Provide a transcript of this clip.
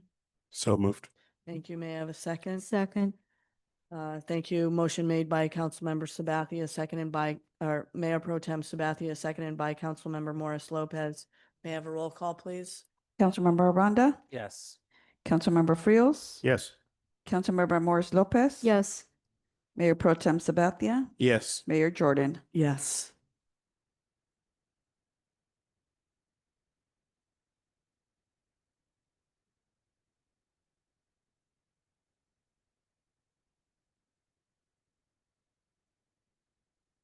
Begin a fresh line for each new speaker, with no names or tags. So moved.
Thank you. May I have a second?
Second,
Uh, thank you. Motion made by Councilmember Sabathia, seconded by, or Mayor Pro Tem Sabathia, seconded by Councilmember Morris Lopez. May I have a roll call, please?
Councilmember Aranda,
Yes.
Councilmember Frios.
Yes.
Councilmember Morris Lopez.
yes,
Mayor Pro Tem Sabathia,
Yes.
Mayor Jordan.
Yes.